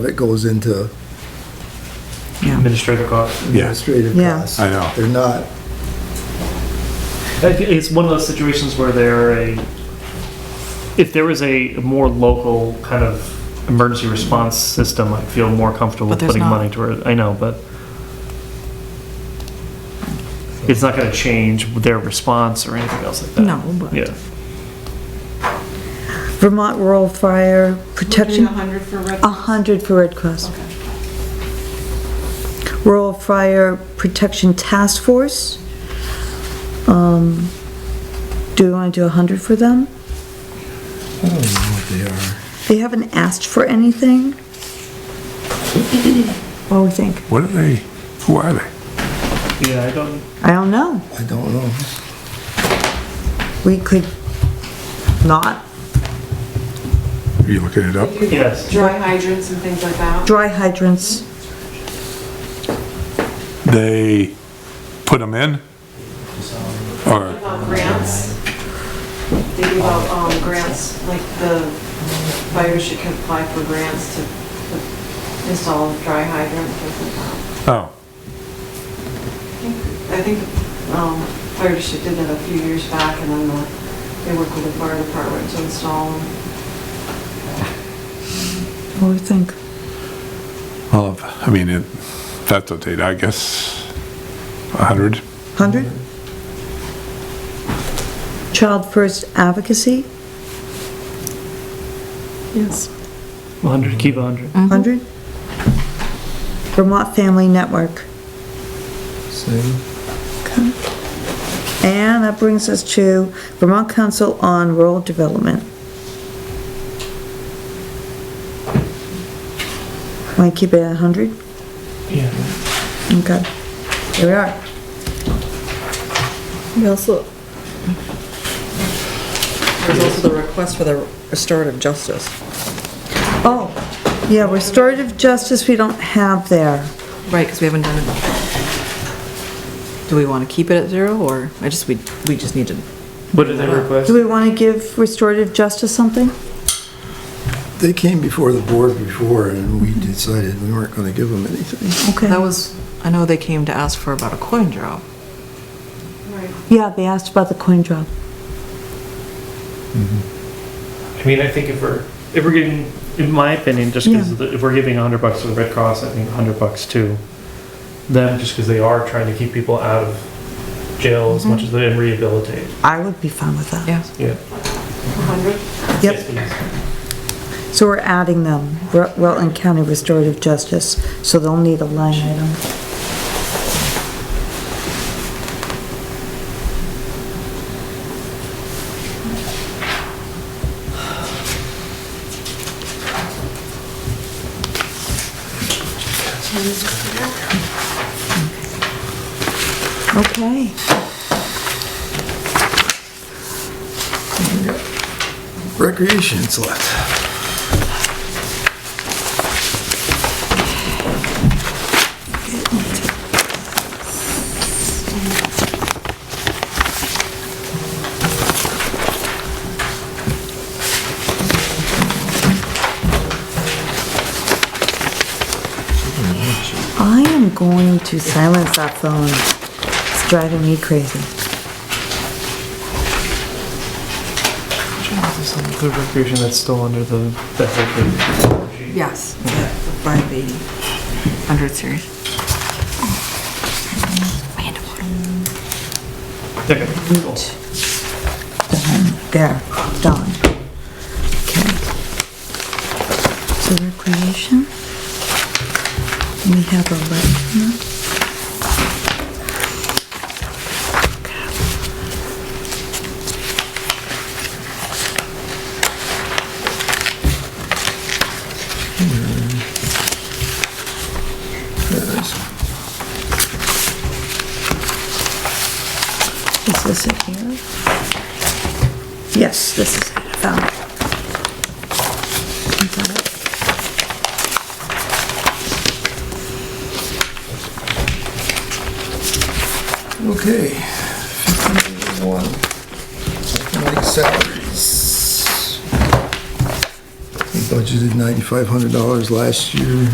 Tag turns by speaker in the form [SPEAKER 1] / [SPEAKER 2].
[SPEAKER 1] that goes into
[SPEAKER 2] Yeah.
[SPEAKER 3] administrative costs.
[SPEAKER 1] administrative
[SPEAKER 2] Yeah.
[SPEAKER 1] costs.
[SPEAKER 4] I know.
[SPEAKER 1] They're not,
[SPEAKER 3] I think Uh, It's one of those situations where they're a, if there was a more local kind of emergency response system, I'd feel more comfortable
[SPEAKER 2] But there's
[SPEAKER 3] putting
[SPEAKER 2] not.
[SPEAKER 3] money toward, I know, but it's not gonna change their response or anything else like that.
[SPEAKER 2] No, but-
[SPEAKER 3] Yeah,
[SPEAKER 2] Vermont Rural Fire Protection,
[SPEAKER 5] hundred for Red
[SPEAKER 2] a hundred for Red Cross. Rural Fire Protection Task Force. Um, Do we want to do a hundred for them?
[SPEAKER 1] I don't know what they are.
[SPEAKER 2] They haven't asked for anything. What do we think?
[SPEAKER 4] What are they, who are they?
[SPEAKER 3] yeah, I don't,
[SPEAKER 2] I don't know.
[SPEAKER 1] I don't know.
[SPEAKER 2] We could not.
[SPEAKER 4] Are you looking it up?
[SPEAKER 3] yes,
[SPEAKER 5] Dry hydrants and things like that.
[SPEAKER 2] Dry hydrants.
[SPEAKER 4] They put them in? Or,
[SPEAKER 5] About Uh, grants. They give out, um, grants, like the fires should apply for grants to to install dry hydrants, things like that.
[SPEAKER 4] oh,
[SPEAKER 5] I think, um, fire district did that a few years back and then the, they work with the fire department to install them.
[SPEAKER 2] What do we think?
[SPEAKER 4] well, I mean, it, that's what they, I guess, a hundred?
[SPEAKER 2] Hundred? Child First Advocacy,
[SPEAKER 5] Yes.
[SPEAKER 3] 100, keep 100.
[SPEAKER 6] Mm-hmm.
[SPEAKER 2] hundred? Vermont Family Network.
[SPEAKER 1] Same.
[SPEAKER 2] And that brings us to Vermont Council on Rural Development. Want to keep it at hundred?
[SPEAKER 3] Yeah.
[SPEAKER 2] Okay, here we are.
[SPEAKER 6] We also, there's also the request for the restorative justice.
[SPEAKER 2] Oh, yeah, restorative justice we don't have there.
[SPEAKER 6] Right, because we haven't done it. Do we want to keep it at zero, or, I just, we, we just need to,
[SPEAKER 3] What did they request?
[SPEAKER 2] Do we want to give restorative justice something?
[SPEAKER 1] They came before the board before and we decided we weren't gonna give them anything.
[SPEAKER 2] Okay.
[SPEAKER 6] that was, I know they came to ask for about a coin drop.
[SPEAKER 5] Right.
[SPEAKER 2] Yeah, they asked about the coin drop.
[SPEAKER 3] I mean, I think if we're, if we're getting, in my opinion, just
[SPEAKER 2] Yeah.
[SPEAKER 3] because if we're giving 100 bucks to the Red Cross, I think 100 bucks to them, just because they are trying to keep people out of jail as
[SPEAKER 2] Mm-hmm.
[SPEAKER 3] much as they can rehabilitate.
[SPEAKER 2] I would be fine with that.
[SPEAKER 6] Yes.
[SPEAKER 3] Yeah.
[SPEAKER 5] hundred?
[SPEAKER 2] Yep, so we're adding them, Rut- Rutland County Restorative Justice, so they'll need a line item. Okay,
[SPEAKER 1] Recreation's left.
[SPEAKER 2] I am going to silence that phone. It's driving me crazy.
[SPEAKER 3] The recreation that's still under the, the health regime.
[SPEAKER 6] Yes, by the hundred series.
[SPEAKER 3] Okay, cool.
[SPEAKER 2] There, done. Okay. So recreation. We have a left. Is this it here? Yes, this is it, I found it. I found it.
[SPEAKER 1] Okay. 51. County salaries. budgeted $9,500 last year.